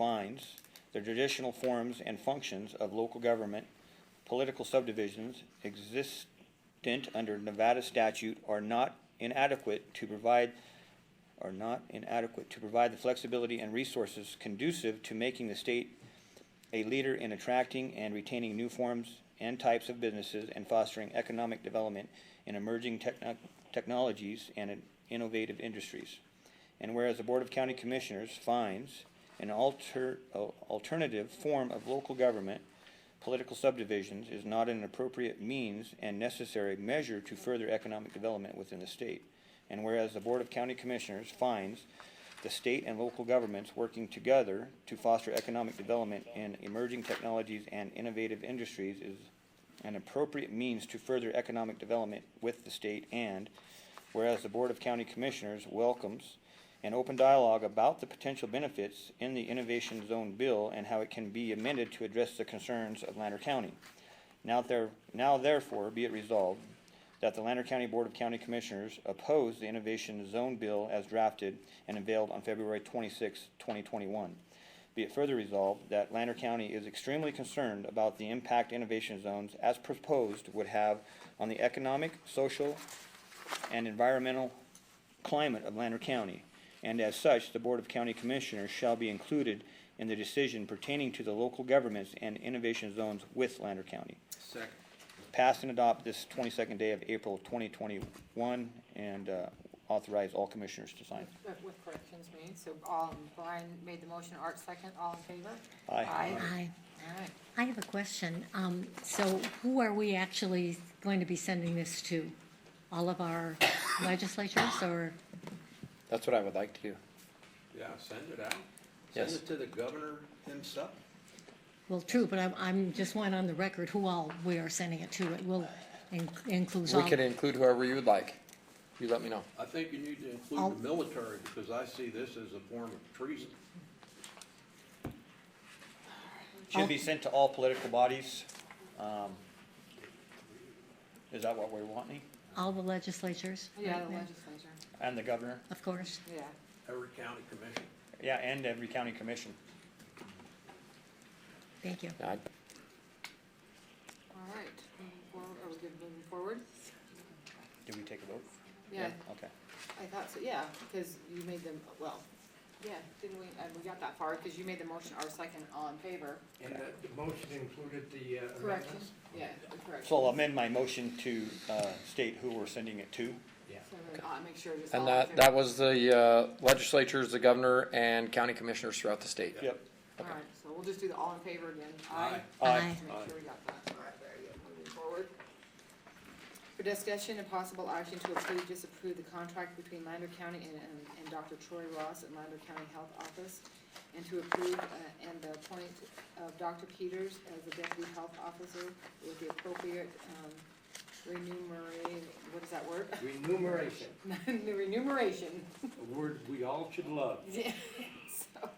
defines the traditional forms and functions of local government, political subdivisions existent under Nevada statute are not inadequate to provide, are not inadequate to provide the flexibility and resources conducive to making the state a leader in attracting and retaining new forms and types of businesses and fostering economic development in emerging techno- technologies and in innovative industries. And whereas the Board of County Commissioners finds an alter, al- alternative form of local government, political subdivisions is not an appropriate means and necessary measure to further economic development within the state. And whereas the Board of County Commissioners finds the state and local governments working together to foster economic development in emerging technologies and innovative industries is an appropriate means to further economic development with the state and whereas the Board of County Commissioners welcomes an open dialogue about the potential benefits in the Innovation Zone Bill and how it can be amended to address the concerns of Lander County. Now there, now therefore be it resolved that the Lander County Board of County Commissioners oppose the Innovation Zone Bill as drafted and unveiled on February 26, twenty twenty-one. Be it further resolved that Lander County is extremely concerned about the impact innovation zones as proposed would have on the economic, social, and environmental climate of Lander County, and as such, the Board of County Commissioners shall be included in the decision pertaining to the local governments and innovation zones with Lander County. Second. Pass and adopt this twenty-second day of April twenty twenty-one, and uh, authorize all commissioners to sign. Uh, With corrections made, so all, Brian made the motion, Art second, all in favor? Aye. Hi, All right, I have a question. Um, So who are we actually going to be sending this to? All of our legislatures or, That's what I would like to do. Yeah, send it out. Send Yes. it to the governor himself. well, true, but I'm, I'm just want on the record who all we are sending it to. It will in- includes We all. could include whoever you would like. You let me know. I think you need to I'll- include the military, because I see this as a form of treason. Should be sent to all political bodies. Um, Is that what we're wanting? All the legislatures. yeah, right, the ma'am? legislature, And the governor? Of course. yeah. Every county commission. Yeah, and every county commission. Thank you. I- All right, moving forward, are we good moving forward? Did we take a vote? Yeah, Okay. I thought so, yeah, because you made them, well, yeah, didn't we, uh, we got that far, because you made the motion, Art second, all in favor? And that the motion included the uh, amendments? Corrections? Yeah, the corrections. So I'll amend my motion to uh, state who we're sending it to. So then, uh, make sure it's all And in that, favor. that was the uh, legislatures, the governor, and county commissioners throughout the state. Yep. All right, so we'll just do the all in favor again, aye? Aye. Make sure we got that. All right, very good. Moving forward. For discussion and possible action to approve, disapprove the contract between Lander County and, and- and Dr. Troy Ross at Lander County Health Office, and to approve, uh, and the appointment of Dr. Peters as the deputy health officer with the appropriate, um, remuneration, what is that word? Remuneration, The remuneration. a word we all should love. Yeah, so.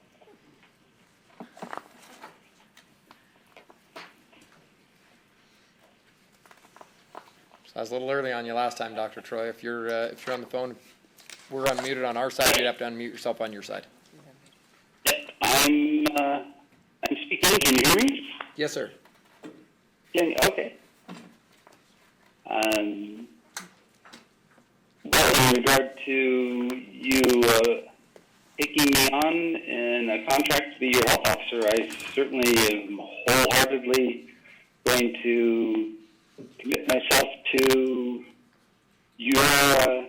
So I was a little early on you last time, Dr. Troy. If you're, uh, if you're on the phone, we're unmuted on our side. You'd have to unmute yourself on your side. I'm uh, I'm speaking. Can you hear me? Yes, sir. Can, okay. Um, well, in regard to you uh, taking me on in a contract to be your health officer, I certainly am wholeheartedly going to commit myself to your uh,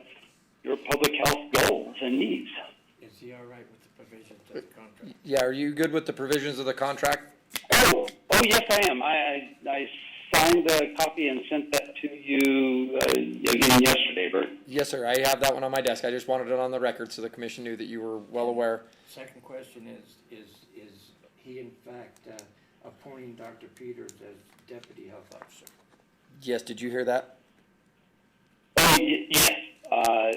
your public health goals and needs. Is he all right with the provisions of the contract? Yeah, are you good with the provisions of the contract? Oh, oh yes, I am. I, I, I signed the copy and sent that to you uh, again yesterday, Bert. Yes, sir. I have that one on my desk. I just wanted it on the record so the commission knew that you were well aware. Second question is, is, is he in fact uh, appointing Dr. Peters as deputy health officer? Yes, did you hear that? Oh, y- yes. Uh,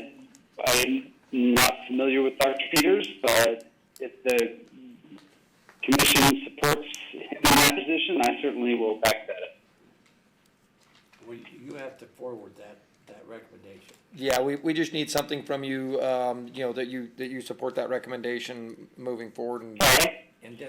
I'm not familiar with Dr. Peters, but if the commission supports him in that position, I certainly will back that up. Well, you have to forward that, that recommendation. Yeah, we, we just need something from you, um, you know, that you, that you support that recommendation moving forward and All right. and